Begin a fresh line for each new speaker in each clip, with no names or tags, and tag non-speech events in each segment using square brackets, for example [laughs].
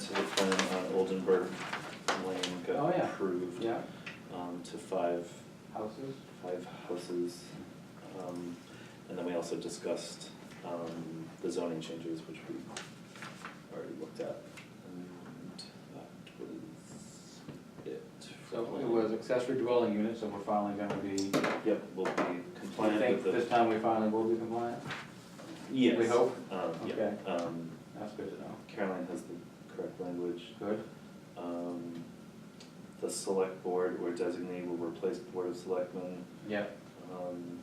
So the plan on Oldenburg Lane
Oh,
got
yeah.
approved
Yeah,
um, to five,
houses?
five houses. Um, And then we also discussed um, the zoning changes, which we already looked at. And that was it. for
So
all.
it was accessory dwelling units, so we're finally gonna be, you
Yep, we'll be compliant
think
with
this
the.
time we finally will be compliant?
Yes.
we hope?
Um, yeah,
Okay.
um,
That's good to know.
Caroline has the correct language.
Good,
Um, The select board or designee will replace board of selectmen.
yeah.
Um,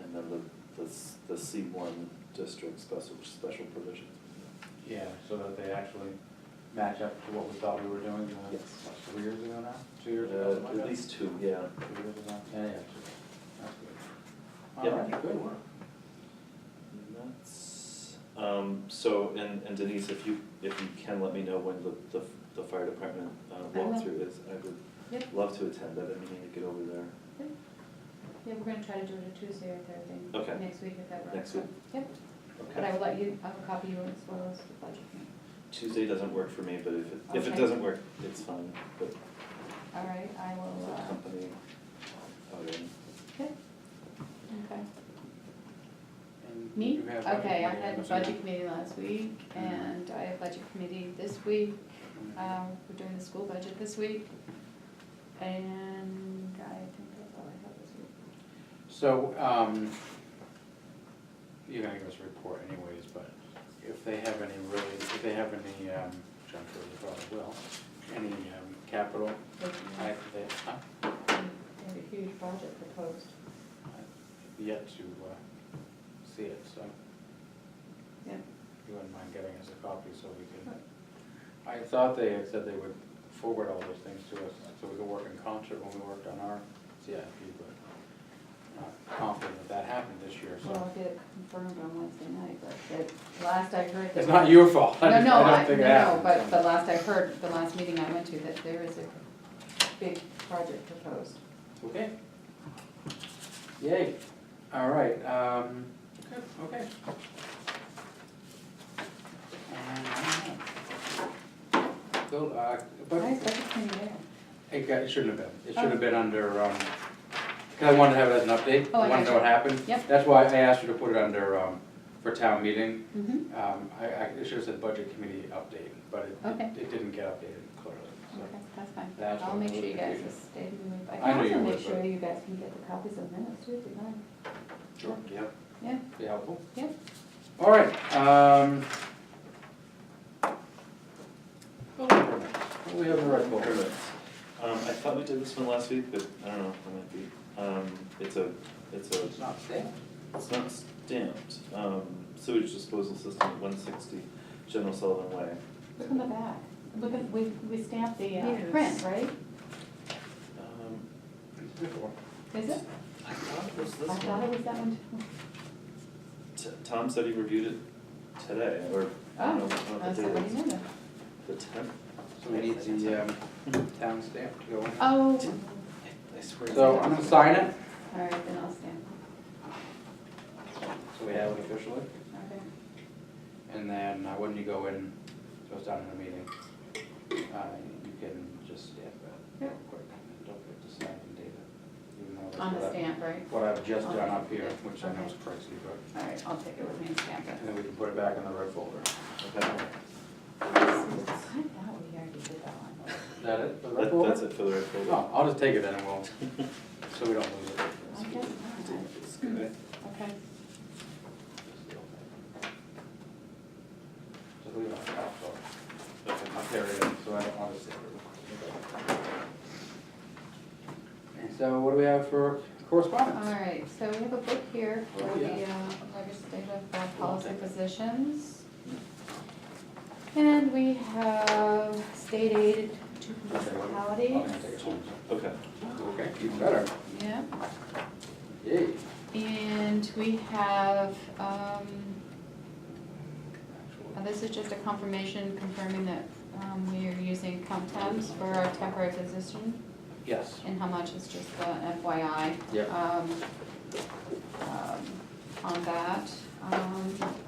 And then the, the, s- the C one district special, special provision.
Yeah, so that they actually match up to what we thought we were doing, uh,
Yes.
what, three years ago now, two years ago, something
Uh,
like that?
At least two, yeah.
Three years ago, yeah, yeah, two.
Yep.
That's good. All right, good work.
And that's, um, so, and, and Denise, if you, if you can let me know when the, the, the fire department uh,
I will.
walkthrough is, I would
Yep.
love to attend that, I need to get over there.
Yeah, we're gonna try to do it a Tuesday or Thursday.
Okay.
Next week if that works.
Next week.
Yep, but I
Okay.
will let you, I will copy you as well as the budget.
Tuesday doesn't work for me, but if it, if it
Okay.
doesn't work, it's fine, but
All right, I will,
the
uh,
company, oh, yeah.
okay. Okay.
And
Me?
you have budget
Okay, I
committee,
had a
I'm
budget committee last week
Mhm.
Mm-hmm.
and I have budget committee this week.
assuming.
Um, we're doing the school budget this week. And I think that's all I have this week.
So, um, you're gonna give us a report anyways, but if they have any really, if they have any, um, which I'm sure they probably will, any, um, capital, I, they, huh?
They have a huge budget proposed.
I've yet to, uh, see it, so
Yeah.
if you wouldn't mind giving us a copy so we can. I thought they had said they would forward all those things to us, so we could work in concert when we worked on our CIP, but not confident that that happened this year, so.
Well, I'll get it confirmed on Wednesday night, but the last I heard.
It's not your fault. [laughs] I
No,
just-
no,
I don't
I, no,
think it
no,
happened,
but
so.
the last I heard, the last meeting I went to, that there is a big project proposed.
Okay. Yay, all right, um, good, okay. So, uh, but
I Oh. expected to be there.
it got, it shouldn't have been, it should have been under, um, cause I wanted to have it as an update,
Oh, I
I wanted to know what
gotcha.
happened.
Yep.
That's why I asked you to put it under, um, for town meeting,
Mm-hmm,
um, I, I, it should have said budget committee update, but it,
Okay.
it- it didn't get updated clearly, so.
okay, that's fine.
That's
I'll
what
make
I
sure
was
you guys
confused.
stay in the loop. I
I
can
know you
also
would,
make
but-
sure you guys can get the copies of minutes too, if you want.
Sure, yep,
Yeah,
be helpful.
Yep.
All right, um. building permits. What do We have a red bull.
Permits. Um, I thought we did this one last week, but I don't know, I might be, um, it's a, it's a,
It's not stamped.
it's not stamped, um, sewage disposal system at one sixty General Sullivan Way.
look on the back. Look at, we, we stamped the uh,
Yes.
print, right?
Um,
Is it?
I thought it was
I
this
thought it
one.
was that one too.
T- Tom said he reviewed it today, or, I don't know, I don't
Oh,
know
That's
the
the
date
one
is.
you know.
The tenth,
So we need the, um, town stamp to go in.
Oh,
I swear.
So I'm gonna sign it,
all right, then I'll stamp.
so we have it officially,
it. Okay.
and then uh, when you go in, so it's down in the meeting, uh, you can just stamp it real
Yep.
quick, and don't forget to sign and date it. even though that's
On
what
the
I-
stamp, right?
What I've just
On
done
the-
up here,
yeah,
which I know
okay.
is crazy, but,
All right, I'll take it with me and stamp
and then we can put it back in the red folder.
Okay,
it. I thought we already did that one.
Is that it, the red
that,
folder? Oh.
that's it for the record.
No, I'll just take it then and we'll, so we don't lose it.
I guess not.
[laughs] It's good.
Okay.
Just leave it on top, so
Okay.
I'll carry it, so I don't want to save it. And so what do we have for
All
correspondence?
right, so we have a book here for
Oh,
the
yeah.
uh, legislative uh, policy positions. And we have state aid to
Okay, what-
municipalities,
I'm gonna take it home.
Okay,
Okay, even better.
yeah.
Yay.
And we have, um, Uh,
Actual-
This is just a confirmation confirming that um, we are using Comtemps for our temporary position
Yes.
and how much is just uh, the FYI.
Yep.
um, um, On that. Um,